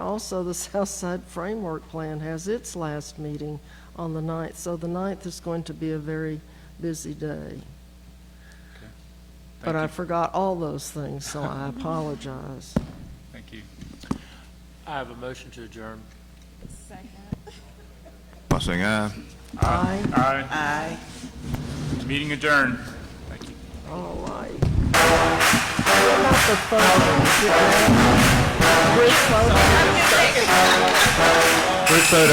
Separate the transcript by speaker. Speaker 1: also, the South Side Framework Plan has its last meeting on the 9th, so the 9th is going to be a very busy day. But
Speaker 2: Thank
Speaker 1: I
Speaker 2: you.
Speaker 1: forgot all those things, so I apologize.
Speaker 2: Thank you.
Speaker 3: I have a motion to adjourn.
Speaker 4: By saying aye.
Speaker 1: Aye,
Speaker 2: Aye. Aye. Meeting adjourned. Thank you.
Speaker 1: all right. What about the photos? Did they- Group photos?